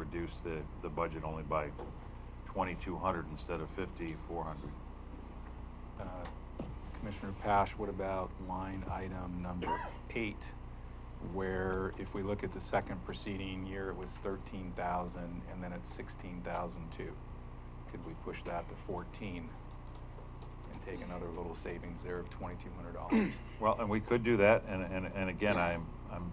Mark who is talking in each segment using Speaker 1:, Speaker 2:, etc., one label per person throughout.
Speaker 1: reduce the, the budget only by twenty-two hundred instead of fifty-four hundred.
Speaker 2: Uh, Commissioner Pash, what about line item number eight? Where if we look at the second preceding year, it was thirteen thousand and then it's sixteen thousand two. Could we push that to fourteen and take another little savings there of twenty-two hundred dollars?
Speaker 1: Well, and we could do that, and, and, and again, I'm, I'm,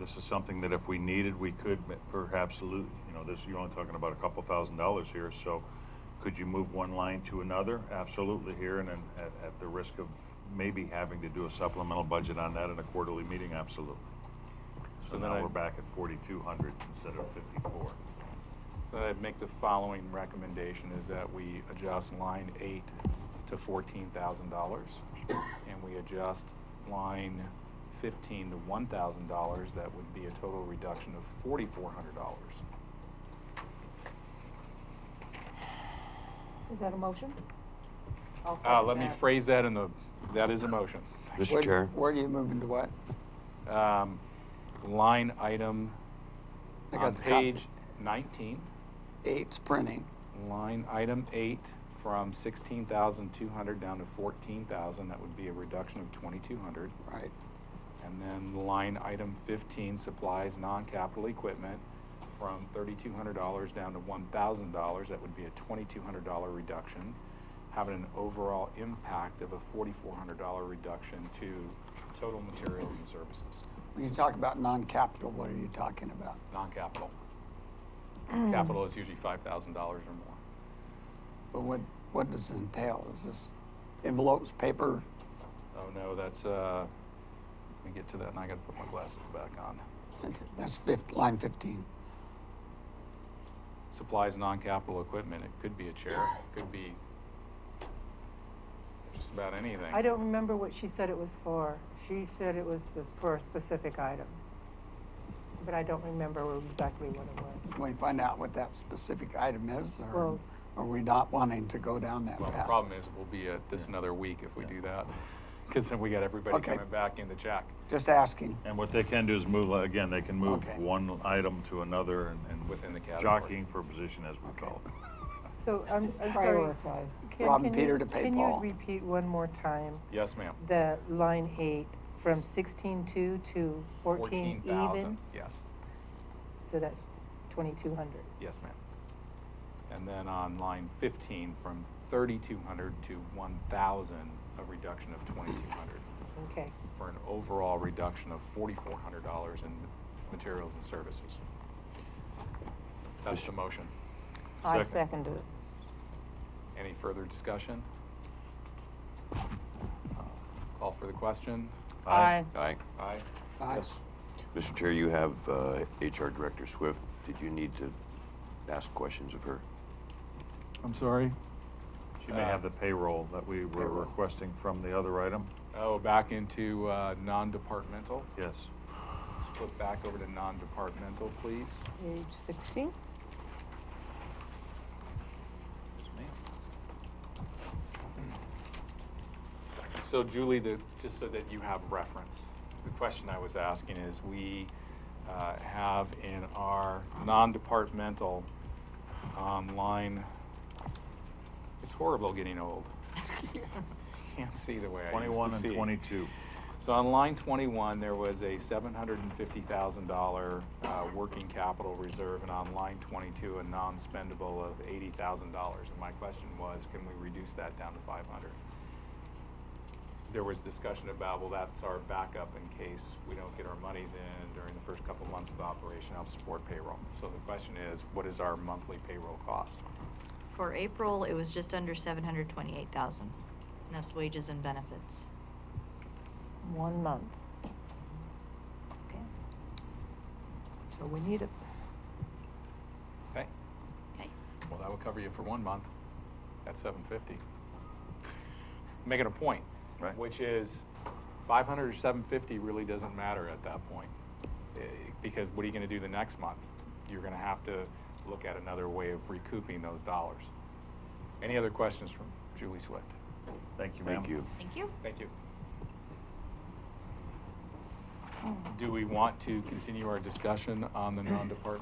Speaker 1: this is something that if we needed, we could ma- perhaps lo- you know, this, you're only talking about a couple thousand dollars here, so could you move one line to another? Absolutely here, and then at, at the risk of maybe having to do a supplemental budget on that in a quarterly meeting, absolutely. So
Speaker 2: So then
Speaker 1: now
Speaker 2: I-
Speaker 1: we're back at forty-two hundred instead of fifty-four.
Speaker 2: So I'd make the following recommendation is that we adjust line eight to fourteen thousand dollars. And we adjust line fifteen to one thousand dollars, that would be a total reduction of forty-four hundred dollars.
Speaker 3: Is that a motion? I'll
Speaker 2: Uh,
Speaker 3: second
Speaker 2: let me
Speaker 3: that.
Speaker 2: phrase that in the, that is a motion.
Speaker 4: Mr.
Speaker 5: Where-
Speaker 4: Chair.
Speaker 5: Where do you move into what?
Speaker 2: Um, line item
Speaker 5: I got
Speaker 2: on
Speaker 5: the copy.
Speaker 2: page nineteen,
Speaker 5: Eight's printing.
Speaker 2: line item eight from sixteen thousand two hundred down to fourteen thousand, that would be a reduction of twenty-two hundred.
Speaker 5: Right.
Speaker 2: And then line item fifteen, supplies, non-capital equipment, from thirty-two hundred dollars down to one thousand dollars, that would be a twenty-two hundred dollar reduction, having an overall impact of a forty-four hundred dollar reduction to total materials and services,
Speaker 5: When you talk about non-capital, what are you talking about?
Speaker 2: non-capital. Capital is usually five thousand dollars or more.
Speaker 5: But what, what does it entail? Is this envelopes, paper?
Speaker 2: Oh, no, that's, uh, let me get to that, and I gotta put my glasses back on.
Speaker 5: That's fifth, line fifteen.
Speaker 2: supplies non-capital equipment. It could be a chair, it could be just about anything.
Speaker 3: I don't remember what she said it was for. She said it was just for a specific item. But I don't remember exactly what it was.
Speaker 5: Can we find out what that specific item is, or
Speaker 3: Well-
Speaker 5: are we not wanting to go down that
Speaker 2: Well, the
Speaker 5: path?
Speaker 2: problem is we'll be at this another week if we do that, because then we got everybody
Speaker 5: Okay.
Speaker 2: coming back in the check.
Speaker 5: Just asking.
Speaker 1: And what they can do is move, like, again, they can move
Speaker 5: Okay.
Speaker 1: one item to another and, and.
Speaker 2: Within the category.
Speaker 1: Jockeying for position as we
Speaker 5: Okay.
Speaker 1: call it.
Speaker 3: So I'm, I'm sorry.
Speaker 6: Prioritize.
Speaker 3: Can-
Speaker 5: Rob
Speaker 3: can
Speaker 5: Peter
Speaker 3: you-
Speaker 5: to pay Paul.
Speaker 3: Can you repeat one more time
Speaker 2: Yes, ma'am.
Speaker 3: the line eight from sixteen-two to fourteen even?
Speaker 2: 14,000. Yes,
Speaker 3: So that's twenty-two hundred.
Speaker 2: yes, ma'am. And then on line fifteen, from thirty-two hundred to one thousand, a reduction of twenty-two hundred,
Speaker 3: Okay.
Speaker 2: for an overall reduction of forty-four hundred dollars in materials and services. That's the motion.
Speaker 6: I
Speaker 1: Second.
Speaker 6: second it.
Speaker 2: Any further discussion? Uh, Call for the question.
Speaker 1: Aye.
Speaker 4: Aye.
Speaker 2: Aye.
Speaker 5: Aye.
Speaker 4: Mr. Chair, you have uh, HR Director Swift. Did you need to ask questions of her?
Speaker 2: I'm sorry?
Speaker 1: Uh, She may have the payroll that we were
Speaker 4: Payroll.
Speaker 1: requesting from the other item.
Speaker 2: Oh, back into uh, non-departmental.
Speaker 1: Yes.
Speaker 2: Let's flip back over to non-departmental, please.
Speaker 3: Page sixteen?
Speaker 2: So Julie, the, just so that you have reference, the question I was asking is, we uh, have in our non-departmental um, line, it's horrible getting old. Can't see the way I used to see.
Speaker 1: Twenty-one and twenty-two.
Speaker 2: So on line 21, there was a $750,000 uh, working capital reserve, and on line 22, a non-spendable of $80,000. And my question was, can we reduce that down to 500? There was discussion about, well, that's our backup in case we don't get our monies in during the first couple months of operation, help support payroll. So the question is, what is our monthly payroll cost?
Speaker 7: For April, it was just under seven hundred twenty-eight thousand, and that's wages and benefits.
Speaker 6: One month.
Speaker 7: Okay.
Speaker 3: So we need it.
Speaker 2: Okay,
Speaker 7: Okay.
Speaker 2: well, that will cover you for one month at 750. Making a point.
Speaker 1: Right.
Speaker 2: Which is, 500 or 750 really doesn't matter at that point. Eh, Because what are you gonna do the next month? You're gonna have to look at another way of recouping those dollars. Any other questions from Julie Swift?
Speaker 1: Thank you, ma'am.
Speaker 4: Thank you.
Speaker 7: Thank you.
Speaker 2: Thank you. Do we want to continue our discussion on the non-department